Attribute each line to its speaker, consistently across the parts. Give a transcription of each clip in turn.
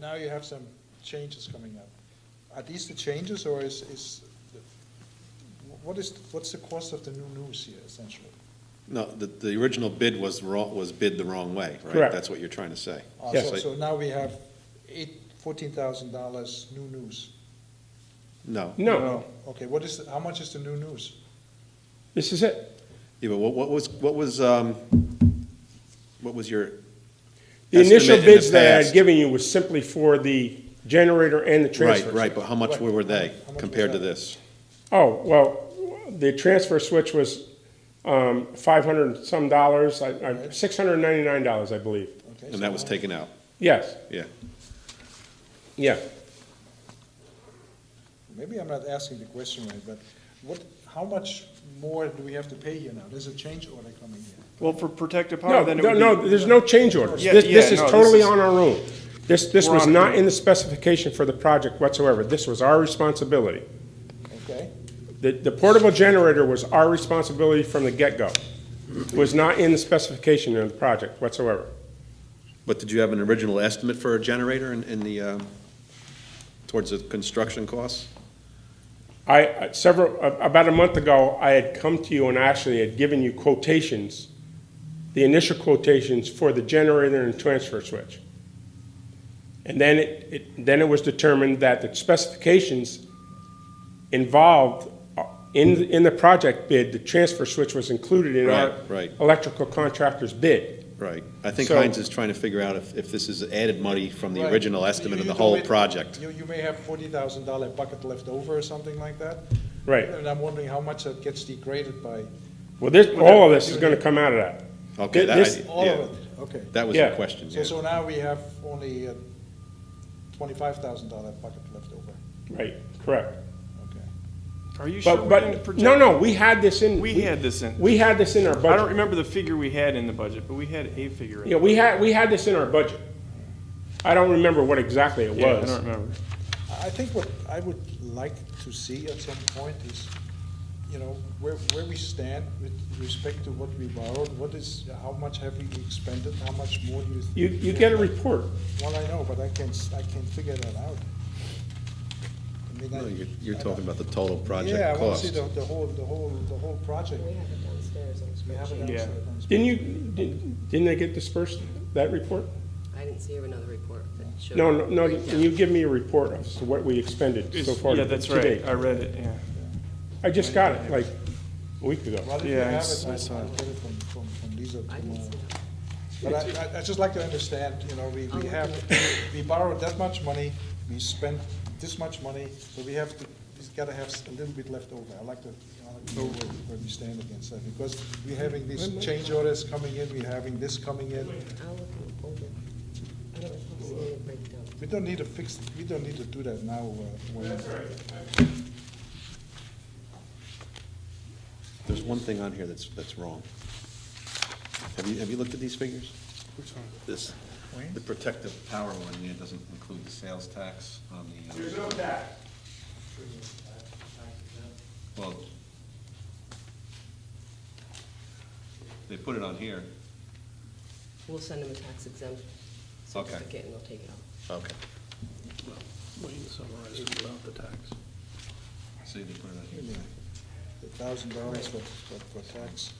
Speaker 1: now you have some changes coming up. Are these the changes, or is, is, the- wh- what is, what's the cost of the new news here essentially?
Speaker 2: No, the, the original bid was wrong, was bid the wrong way, right?
Speaker 3: Correct.
Speaker 2: That's what you're trying to say.
Speaker 1: Uh,
Speaker 3: Yes.
Speaker 1: so- So now we have eight, fourteen thousand dollars new news.
Speaker 2: No.
Speaker 3: No,
Speaker 1: Okay, what is, the- how much is the new news?
Speaker 3: this is it.
Speaker 2: Yeah, but what, what was, what was, um, what was your?
Speaker 3: The initial
Speaker 2: estimate in the
Speaker 3: bids that I had
Speaker 2: past?
Speaker 3: given you was simply for the generator and the transfer.
Speaker 2: Right, right, but how much
Speaker 1: Right.
Speaker 2: were they
Speaker 1: How much was
Speaker 2: compared to
Speaker 1: that?
Speaker 2: this?
Speaker 3: Oh, well, the transfer switch was um, 500 and some dollars, I- I- $699, I believe.
Speaker 1: Okay, so
Speaker 2: And that was
Speaker 1: how-
Speaker 2: taken out,
Speaker 3: Yes,
Speaker 2: yeah.
Speaker 3: yeah.
Speaker 1: Maybe I'm not asking the question right, but what, how much more do we have to pay here now? There's a change order coming here.
Speaker 4: Well, for protective
Speaker 3: No,
Speaker 4: power, Oh, then it
Speaker 3: no,
Speaker 4: would be.
Speaker 3: no, there's no change orders.
Speaker 4: Yeah,
Speaker 3: This,
Speaker 4: yeah,
Speaker 3: this is
Speaker 4: no, this
Speaker 3: totally
Speaker 4: is-
Speaker 3: on our own. This, this
Speaker 4: We're
Speaker 3: was
Speaker 4: on our
Speaker 3: not in the specification for the project whatsoever. This was our responsibility.
Speaker 1: Okay,
Speaker 3: The, the portable generator was our responsibility from the get-go. It Was not in the specification of the project whatsoever.
Speaker 2: But did you have an original estimate for a generator in, in the, um, towards the construction costs?
Speaker 3: I, several, a- about a month ago, I had come to you and actually had given you quotations, the initial quotations for the generator and transfer switch. And then it, it, then it was determined that the specifications involved uh, in, in the project bid, the transfer switch was included in our
Speaker 2: Right, right.
Speaker 3: electrical contractor's bid.
Speaker 2: Right, I think
Speaker 3: So-
Speaker 2: Heinz is trying to figure out if, if this is added money from the
Speaker 1: Right.
Speaker 2: original
Speaker 1: You-
Speaker 2: estimate of
Speaker 1: you
Speaker 2: the
Speaker 1: do
Speaker 2: whole
Speaker 1: it-
Speaker 2: project.
Speaker 1: You, you may have forty thousand dollar bucket left over or something like that.
Speaker 3: Right.
Speaker 1: And I'm wondering how much that gets degraded by
Speaker 3: Well, this, all of this is gonna come out of that.
Speaker 2: Okay, that,
Speaker 3: This-
Speaker 2: I-
Speaker 1: all
Speaker 2: yeah,
Speaker 1: of it, okay.
Speaker 2: that was the
Speaker 3: Yeah.
Speaker 2: question,
Speaker 1: So,
Speaker 2: yeah.
Speaker 1: so now we have only twenty-five thousand dollar bucket left over,
Speaker 3: Right, correct.
Speaker 1: okay.
Speaker 4: Are you sure?
Speaker 3: But,
Speaker 4: we didn't
Speaker 3: but,
Speaker 4: protect-
Speaker 3: no, no, we had this in.
Speaker 4: We had this in.
Speaker 3: We had this in our budget.
Speaker 4: I don't remember the figure we had in the budget, but we had a figure. in
Speaker 3: Yeah, we had, we had this in our budget. I don't remember what exactly it
Speaker 4: the- Yeah, I
Speaker 3: was.
Speaker 4: don't remember.
Speaker 1: I think what I would like to see at some point is, you know, where, where we stand with respect to what we borrowed, what is, how much have we expended, how much more do you?
Speaker 3: You, you get a report.
Speaker 1: Well, I know, but I can't, s- I can't figure that out. I mean, I-
Speaker 2: No, You're, you're talking about the total
Speaker 1: Yeah, I
Speaker 2: project
Speaker 1: wanna see
Speaker 2: cost.
Speaker 1: the, the whole, the whole, the whole project.
Speaker 5: We have it downstairs on
Speaker 1: We have it
Speaker 5: spreadsheet.
Speaker 4: Yeah.
Speaker 1: answered on-
Speaker 3: Didn't you, didn't didn't they get dispersed, that report?
Speaker 5: I didn't see another report that showed.
Speaker 3: No, no, no,
Speaker 5: breakdown.
Speaker 3: you give me a report of what we expended so far
Speaker 4: Yeah, that's
Speaker 3: today.
Speaker 4: right. I read it, yeah.
Speaker 3: I just got it like a week ago.
Speaker 1: Well, if you
Speaker 4: Yeah, I
Speaker 1: have
Speaker 4: s-
Speaker 1: it,
Speaker 4: I
Speaker 1: I'll,
Speaker 4: saw
Speaker 1: I'll
Speaker 4: it.
Speaker 1: get it from, from, from Lisa
Speaker 5: I didn't see
Speaker 1: tomorrow.
Speaker 5: that.
Speaker 1: But I, I- I'd just like to understand, you know, we,
Speaker 5: I'll
Speaker 1: we
Speaker 5: look
Speaker 1: have,
Speaker 5: at
Speaker 1: we borrowed that much money, we spent this much money, so we have to, we've gotta have s- a little bit left over. I'd like to, I'd like to know where, where we stand against that, because we're having these change orders coming in, we're having this coming in.
Speaker 5: I'll look at it over. I don't see any breakdown.
Speaker 1: We don't need to fix, we don't need to do that now, uh, when.
Speaker 2: There's one thing on here that's, that's wrong. Have you, have you looked at these figures? This, the protective power one, yeah, doesn't include the sales tax on the. uh, There's no tax. Well. They put it on here.
Speaker 5: We'll send them a tax exempt
Speaker 2: Okay.
Speaker 5: certificate and they'll take it off.
Speaker 2: Okay.
Speaker 6: Wayne summarized it without the tax.
Speaker 2: See, they put it on here.
Speaker 1: The thousand dollars for, for for tax.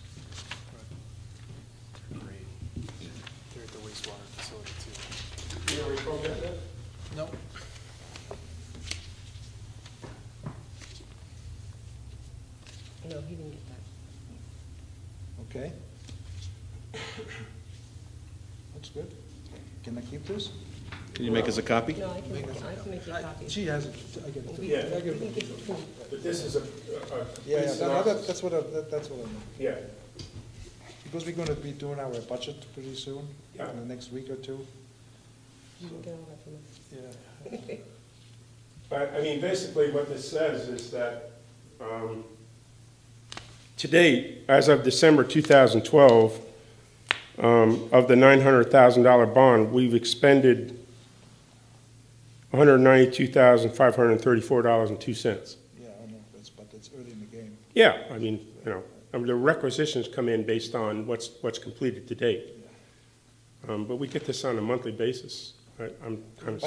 Speaker 2: Yeah.
Speaker 6: They're at the wastewater facility too.
Speaker 1: No.
Speaker 5: No, he didn't get that.
Speaker 1: Okay. That's good. Can I keep this?
Speaker 2: Can you make us a copy?
Speaker 5: No, I can, I can make you a copy.
Speaker 1: She has it, I get it.
Speaker 5: We-
Speaker 3: Yeah.
Speaker 5: I can give it to you.
Speaker 3: But this is a,
Speaker 1: Yeah, yeah, that- that- that's what I, that- that's what I mean.
Speaker 3: yeah.
Speaker 1: Because we're gonna be doing our budget pretty soon,
Speaker 3: Yeah.
Speaker 1: in the next week or two.
Speaker 5: You can get all that from us.
Speaker 1: Yeah.
Speaker 3: But, I mean, basically what this says is that, um. Today, as of December two thousand twelve, um, of the nine hundred thousand dollar bond, we've expended one hundred ninety-two thousand, five hundred and thirty-four dollars and two cents.
Speaker 1: Yeah, I know, that's, but it's early in the game.
Speaker 3: Yeah, I mean, you know, I mean, the requisitions come in based on what's, what's completed to date. Um, but we get this on a monthly basis. I, I'm kind of